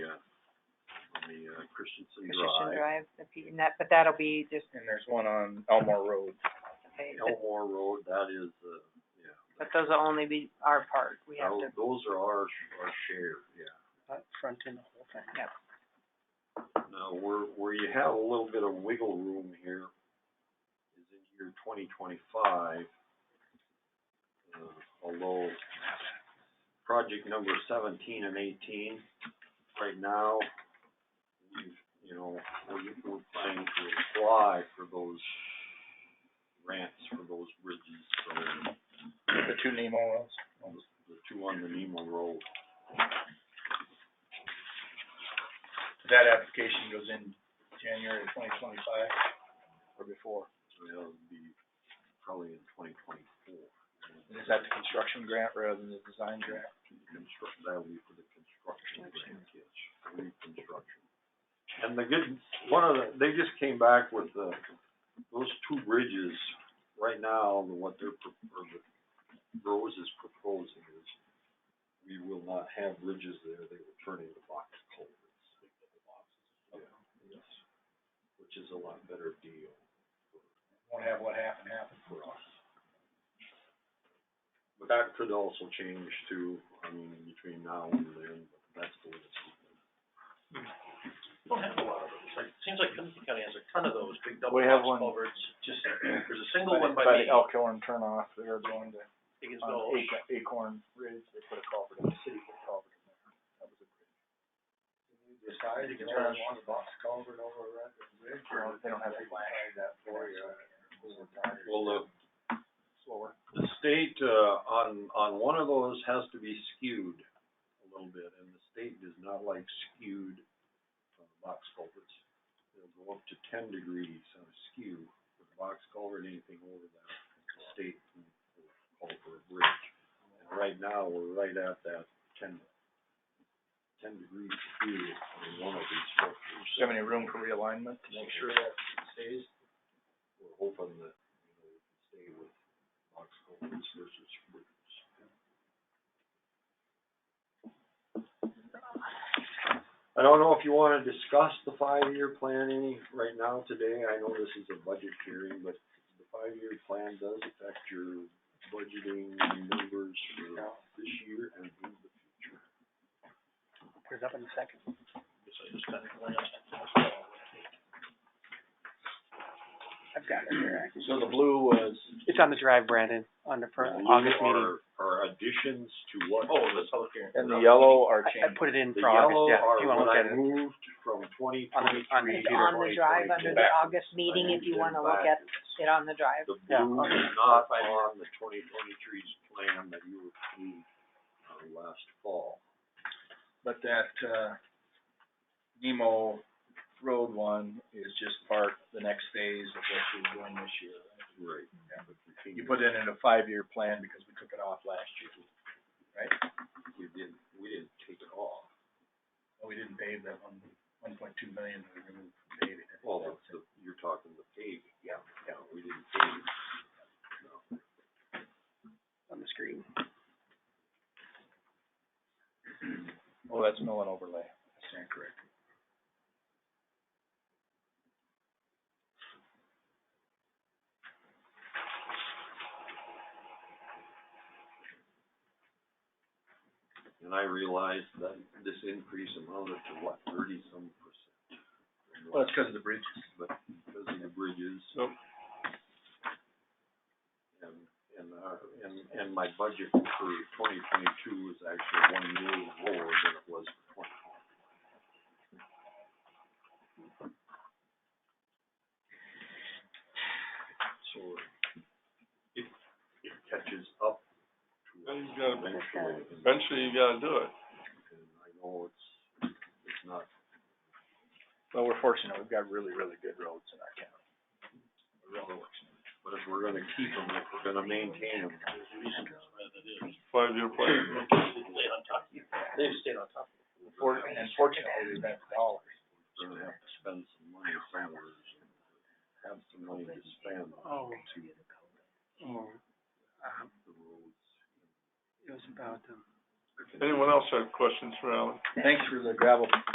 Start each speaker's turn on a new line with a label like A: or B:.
A: on uh, Christensen
B: Christian
A: Drive,
B: Drive, the P, and that, but that'll be just,
C: And there's one on Elmore Road.
B: okay, but,
A: Elmore Road, that is, uh, yeah.
B: but those will only be our part, we have to,
A: Those- Those are our, sh- our share, yeah.
C: Not front end the whole thing.
B: yeah.
A: Now, where, where you have a little bit of wiggle room here is in year twenty twenty-five. Although, project number seventeen and eighteen, right now, we've, you know, we're, we're planning to apply for those grants for those bridges, so
C: The two name oils.
A: the two on the Nemo Road.
C: That application goes in January twenty twenty-five or before.
A: It'll be probably in twenty twenty-four.
C: And is that the construction grant rather than the design grant?
A: Construct, that'll be for the construction grant, yes, reconstruction. And the good, one of the, they just came back with the, those two bridges, right now, what they're, pro- or the Rose is proposing is we will not have bridges there, they will turn into box culverts. Yeah, yes, which is a lot better deal.
C: Won't have what happened happen for us.
A: But that could also change too, I mean, in between now and then, but that's the way it's.
D: Hmm. don't have a lot of those, like, it seems like Tennessee County has a ton of those, big double
C: We have
D: box
C: one.
D: culverts, just, there's a single
C: By
D: one
C: the-
D: by
C: By
D: me,
C: the Elkhorn turnoff, they're going to,
D: Higginsville.
C: on Acorn, Acorn Ridge, they put a culvert in, the city put a culvert in there. That was a bridge.
D: I think it's around one
C: They don't, they don't have to flag that for you.
A: Well, the,
C: Slower.
A: the state, uh, on, on one of those has to be skewed a little bit, and the state does not like skewed, uh, box culverts. They'll go up to ten degrees on a skew with a box culvert, anything over that, the state can call for a bridge. And right now, we're right at that ten, ten degree skew in one of these structures.
C: Do you have any room for realignment to make sure that stays?
A: we're hoping that, you know, we can stay with box culverts versus bridges. I don't know if you wanna discuss the five-year plan any, right now, today, I know this is a budget hearing, but the five-year plan does affect your budgeting numbers for this year and in the future.
C: Where's up in a second?
D: So just kind of glanced.
E: I've got it here. I can-
C: So the blue was,
E: It's on the drive, Brandon, on the per, August meeting.
A: Are, are additions to what?
D: Oh, the public hearing.
C: and the yellow are
E: I, I
C: changed.
E: put it in
A: The
E: for August,
A: yellow
E: yeah, if
A: are
E: you wanna
A: what
E: look at
A: I
E: it.
A: moved from twenty
E: On the- on the
A: twenty-three
B: It's
A: to
E: computer.
B: on the drive under the August meeting, if you wanna look at it on the drive.
A: The
E: Yeah.
A: blue is not on the twenty twenty-three plan that you approved, uh, last fall.
C: But that, uh, Nemo Road one is just part, of the next phase of what you're doing this year.
A: Right.
C: You put it in a five-year plan because we took it off last year.
A: We didn't, we didn't take it off.
C: Well, We didn't pave that one, one point two million, we removed from paving.
A: Well, the, the- you're talking the paving.
C: Yeah.
A: Yeah, we didn't pave it.
E: on the screen.
C: Oh, that's mill and overlay. I stand corrected.
A: And I realized that this increase amounted to what, thirty-some percent?
C: Well, it's because of the bridges.
A: but because of the bridges.
C: Yep.
A: And, and, uh, and, and my budget for twenty twenty-two is actually one million lower than it was for twenty twenty. So it, it catches up to
F: Well, you gotta-
A: eventually. and-
F: Eventually, you gotta do it.
A: And I know it's, it's not
C: Well, we're fortunate, we've got really, really good roads in our county. We're really fortunate.
A: But if we're gonna keep them, if we're gonna maintain them,
F: Five-year plan.
D: Stay on top, they've stayed on top.
C: For, and fortunately, we've got the dollars.
A: we're gonna have to spend some money somewhere. Have some money to spend
E: Oh,
A: to
E: oh, um,
A: the roads.
E: it was about, um.
F: Anyone else have questions for Alan?
C: Thanks for the gravel